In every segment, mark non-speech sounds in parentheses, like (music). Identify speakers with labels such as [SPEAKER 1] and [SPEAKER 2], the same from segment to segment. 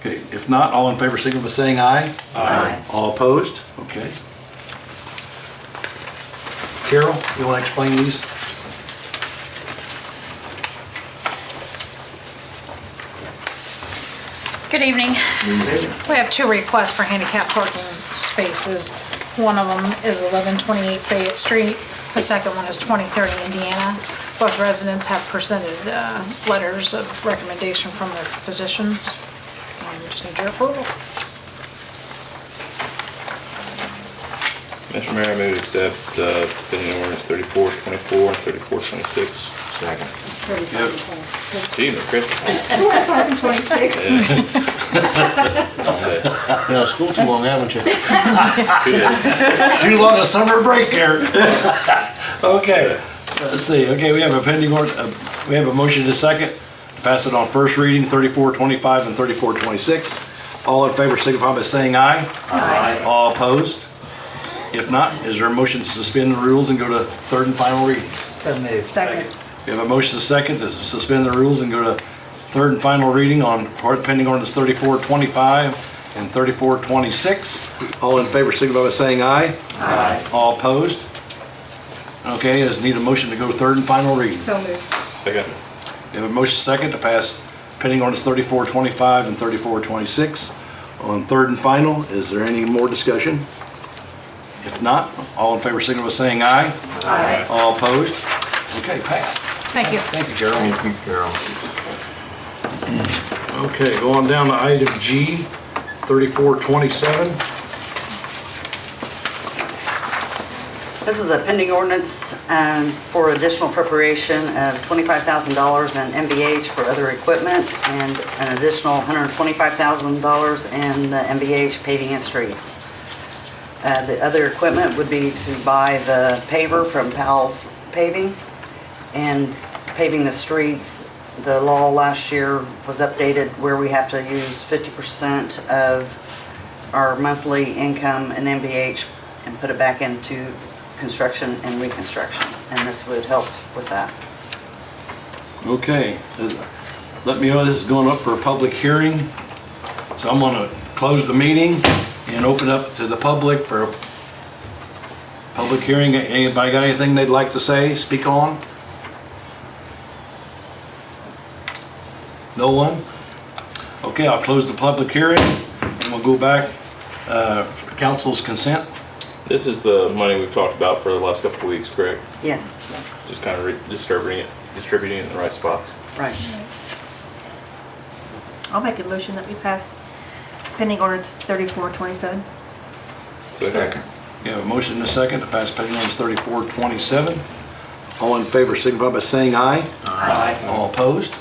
[SPEAKER 1] Okay, if not, all in favor, signal by saying aye.
[SPEAKER 2] Aye.
[SPEAKER 1] All opposed? Okay. Carol, you want to explain these?
[SPEAKER 3] Good evening. We have two requests for handicap parking spaces. One of them is 1128 Fayette Street, the second one is 2030 Indiana. Both residents have presented uh, letters of recommendation from their physicians. And we just need your approval.
[SPEAKER 4] Mr. Mayor, I move to accept uh, pending ordinance 3424 and 3426. Second. Gee, they're crisp.
[SPEAKER 2] Twenty-five and twenty-six.
[SPEAKER 4] Yeah. Okay,
[SPEAKER 1] You're out of school too long, haven't you?
[SPEAKER 4] Two (laughs) days.
[SPEAKER 1] (laughs) Too long a summer break here. (laughs) Okay, let's see, okay, we have a pending, ord- uh, we have a motion to second, pass it on first reading, 3425 and 3426. All in favor signify by saying aye. Aye. All opposed? If not, is there a motion to suspend the rules and go to third and final reading?
[SPEAKER 5] So moved.
[SPEAKER 2] Second.
[SPEAKER 1] We have a motion to second to suspend the rules and go to third and final reading on part pending ordinance 3425 and 3426. All in favor signify by saying aye. Aye. All opposed? Okay, is need a motion to go to third and final reading.
[SPEAKER 2] So moved.
[SPEAKER 4] Second.
[SPEAKER 1] We have a motion second to pass pending ordinance 3425 and 3426. On third and final, is there any more discussion? If not, all in favor signify by saying aye. Aye. All opposed? Okay, passed.
[SPEAKER 3] Thank you.
[SPEAKER 1] Thank you, Carol. Thank you, Carol. Okay, go on down to item G, 3427.
[SPEAKER 6] This is a pending ordinance um, for additional appropriation of $25,000 in MBH for other equipment and an additional $125,000 in the MBH paving and streets. Uh, The other equipment would be to buy the paver from Powell's Paving and paving the streets. The law last year was updated where we have to use 50% of our monthly income in MBH and put it back into construction and reconstruction, and this would help with that.
[SPEAKER 1] Okay, uh, let me know, this is going up for a public hearing, so I'm gonna close the meeting and open up to the public for a public hearing. Anybody got anything they'd like to say, speak on? No one? Okay, I'll close the public hearing, and we'll go back, uh, for council's consent.
[SPEAKER 4] This is the money we've talked about for the last couple of weeks, correct?
[SPEAKER 6] Yes,
[SPEAKER 4] Just kind of distributing it, distributing it in the right spots.
[SPEAKER 6] right.
[SPEAKER 7] I'll make a motion that we pass pending ordinance thirty-four twenty-seven.
[SPEAKER 4] Second.
[SPEAKER 1] We have a motion and a second to pass pending ordinance 3427. All in favor signify by saying aye. Aye. All opposed?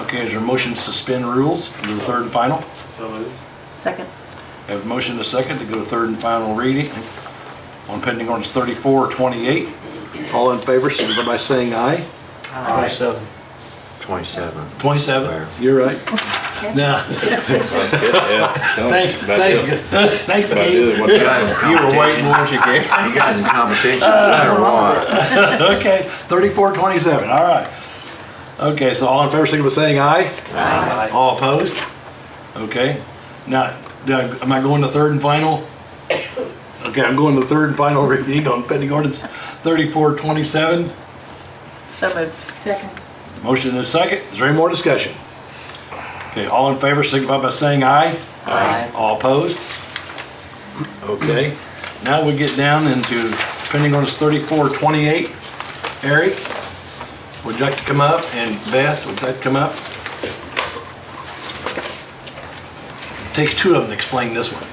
[SPEAKER 1] Okay, is there a motion to suspend rules to the third and final?
[SPEAKER 7] Second.
[SPEAKER 1] We Have a motion and a second to go to third and final reading on pending ordinance 3428. All in favor signify by saying aye. 27.
[SPEAKER 8] 27.
[SPEAKER 1] 27, you're right. Nah,
[SPEAKER 4] Sounds good, yeah.
[SPEAKER 1] thanks,
[SPEAKER 4] Sounds about
[SPEAKER 1] thank you. (laughs)
[SPEAKER 4] it.
[SPEAKER 1] Thanks,
[SPEAKER 4] About it,
[SPEAKER 1] Gabe.
[SPEAKER 4] what-
[SPEAKER 1] You were waiting, weren't you, Gabe?
[SPEAKER 8] You guys in competition, no matter what.
[SPEAKER 1] Okay, thirty-four twenty-seven, all right. Okay, so all in favor, signal by saying aye? Aye. All opposed? Okay, now, now, am I going to third and final? Okay, I'm going to third and final reading on pending ordinance thirty-four twenty-seven.
[SPEAKER 7] So moved.
[SPEAKER 2] Second.
[SPEAKER 1] Motion is second, is there any more discussion? Okay, all in favor, signify by saying aye? Aye. All opposed? Okay, now we get down into pending ordinance thirty-four twenty-eight. Eric, would you like to come up, and Beth, would you like to come up? Takes two of them to explain this one.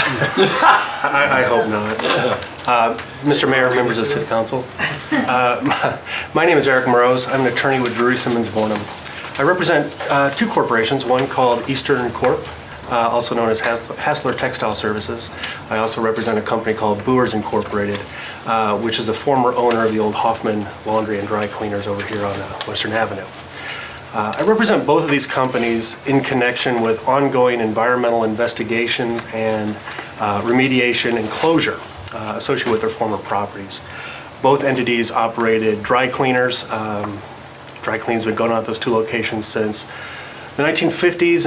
[SPEAKER 9] I, I hope not. Uh, Mr. Mayor, members of the city council. Uh, (laughs) My name is Eric Morose. I'm an attorney with Drury Simmons Bonham. I represent uh, two corporations, one called Eastern Corp., uh, also known as Has- Hassler Textile Services. I also represent a company called Boers Incorporated, uh, which is the former owner of the old Hoffman Laundry and Dry Cleaners over here on uh, Western Avenue. Uh, I represent both of these companies in connection with ongoing environmental investigations and uh, remediation and closure uh, associated with their former properties. Both entities operated dry cleaners. Um, Dry cleans have been going on at those two locations since the 1950s and